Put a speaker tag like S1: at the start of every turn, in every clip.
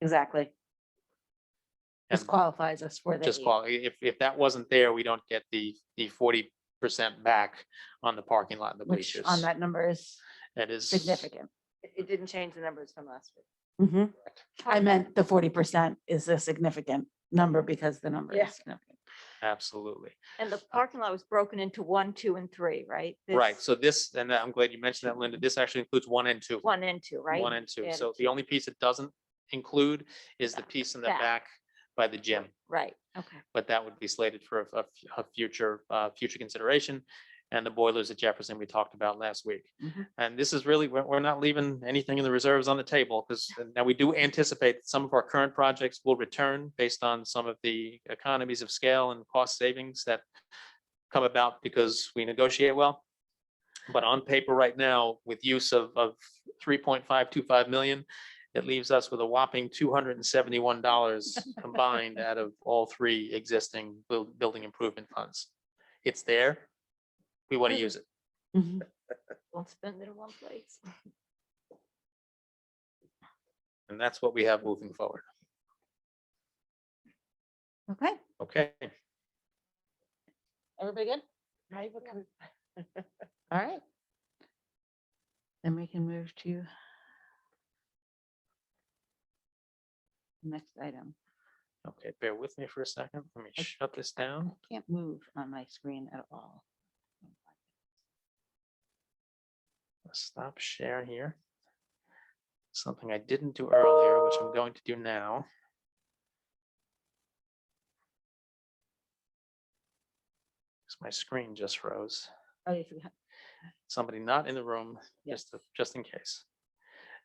S1: Exactly. Just
S2: And
S1: qualifies us for the.
S2: Just
S1: eight.
S2: qual, if, if that wasn't there, we don't get the, the forty percent back on the parking lot and the
S1: Which
S2: bleachers.
S1: on that number is
S2: That is.
S1: significant.
S3: It- It didn't change the numbers from last week. Mm-hmm.
S1: Mhm. I meant the forty percent is a significant number because the number
S3: Yeah.
S1: is significant.
S2: Absolutely.
S3: And the parking lot was broken into one, two, and three, right?
S2: Right.
S3: This
S2: So this, and I'm glad you mentioned that, Linda, this actually includes one and two.
S3: One and two, right?
S2: One and two.
S3: And
S2: So the only piece it doesn't include is the
S3: Back.
S2: piece in the
S3: Back.
S2: back by the gym.
S3: Right, okay.
S2: but that would be slated for a- a, f- a future, uh, future consideration. And the boilers at Jefferson we talked about last week.
S1: Mhm.
S2: And this is really, we're, we're not leaving anything in the reserves on the table because now we do anticipate that some of our current projects will return based on some of the economies of scale and cost savings that come about because we negotiate well. But on paper right now, with use of, of three point five two five million, it leaves us with a whopping two hundred and seventy-one dollars combined out of all three existing buil- building improvement funds. It's there. We want to use it.
S1: Mhm.
S3: Won't spend it in one place.
S2: And that's what we have moving forward.
S1: Okay,
S2: Okay.
S1: everybody good?
S3: Right, what kind
S1: All right. Then we can move to the next item.
S2: Okay, bear with me for a second. Let me
S1: I-
S2: shut this
S1: I
S2: down.
S1: can't move on my screen at all.
S2: Stop share here. Something I didn't do earlier, which I'm going to do now. Because my screen just froze.
S1: Oh, you forgot.
S2: somebody not in the room,
S1: Yeah.
S2: just, to- just in case.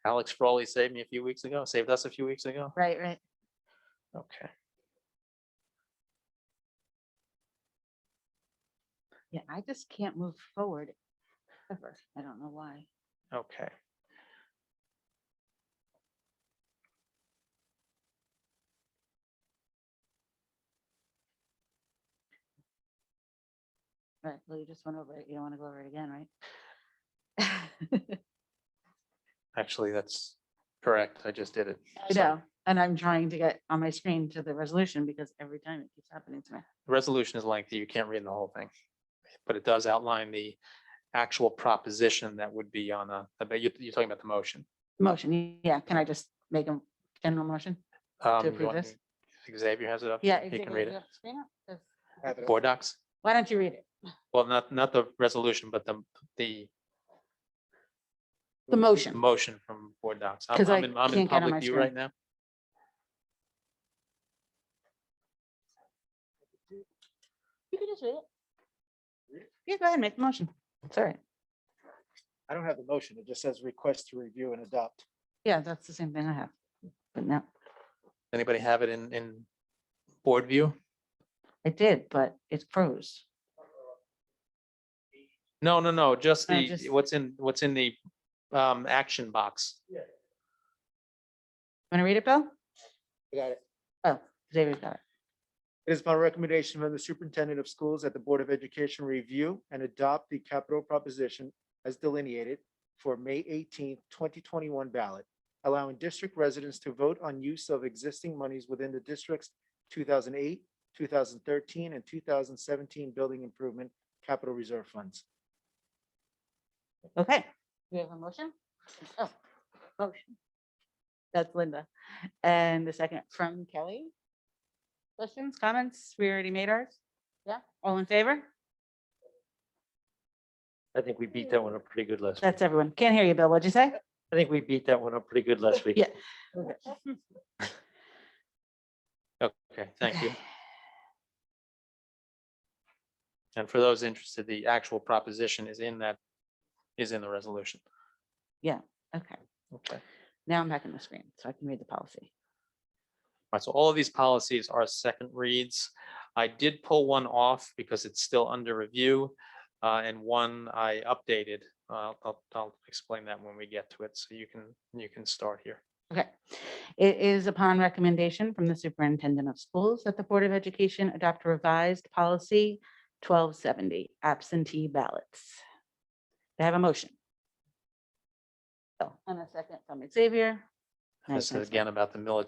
S2: Alex Frawley saved me a few weeks ago, saved us a few weeks ago.
S1: Right, right.
S2: Okay,
S1: Yeah, I just can't move forward ever. I don't know why.
S2: okay.
S1: Right, well, you just went over it. You don't want to go over it again, right?
S2: Actually, that's correct. I just did it.
S1: I
S2: So,
S1: know, and I'm trying to get on my screen to the resolution because every time it keeps happening to me.
S2: the Resolution is lengthy. You can't read the whole thing. But it does outline the actual proposition that would be on a, I bet you, you're talking about the motion.
S1: Motion, yeah, can I just make a general motion?
S2: Um, you
S1: approve
S2: want-
S1: this?
S2: Xavier has it up.
S1: Yeah.
S2: He can
S1: executive
S2: read it.
S1: director, screen up, 'cause-
S2: Board docs?
S1: Why don't you read it?
S2: Well, not, not the resolution, but the, the
S1: The motion.
S2: motion from board docs. I'm
S1: 'Cause
S2: I'm
S1: I
S2: in, I'm in
S1: can't get on my
S2: public view
S1: screen.
S2: right now.
S1: You can just read it. Yeah, go ahead, make the motion. It's all right.
S4: I don't have the motion. It just says request to review and adopt.
S1: Yeah, that's the same thing I have. But no,
S2: Anybody have it in, in board view?
S1: I did, but it froze.
S2: No, no, no, just
S1: No,
S2: the,
S1: just-
S2: what's in, what's in the um, action box.
S1: Want to read it, Bill?
S4: I got it.
S1: Oh, Xavier's got it.
S4: It is my recommendation from the superintendent of schools that the Board of Education review and adopt the capital proposition as delineated for May 18, twenty twenty-one ballot, allowing district residents to vote on use of existing monies within the district's two thousand eight, two thousand thirteen, and two thousand seventeen building improvement capital reserve funds.
S1: Okay. We have a motion? Oh, Motion. That's Linda. And the second from Kelly. Questions, comments? We already made ours? Yeah, all in favor?
S5: I think we beat that one up pretty good last week.
S1: That's everyone. Can't hear you, Bill. What'd you say?
S5: I think we beat that one up pretty good last week.
S1: Yeah.
S2: Okay, thank you. And for those interested, the actual proposition is in that, is in the resolution.
S1: Okay,
S2: Okay.
S1: now I'm back in the screen so I can read the policy.
S2: Right, so all of these policies are second reads. I did pull one off because it's still under review. uh, and one I updated. Uh, I'll, I'll explain that when we get to it. So you can, you can start here.
S1: Okay. It is upon recommendation from the Superintendent of Schools that the Board of Education adopt revised policy 1270 absentee ballots. They have a motion. Oh, And a second from Xavier. Nice,
S2: This
S1: nice, nice.
S2: is again about the military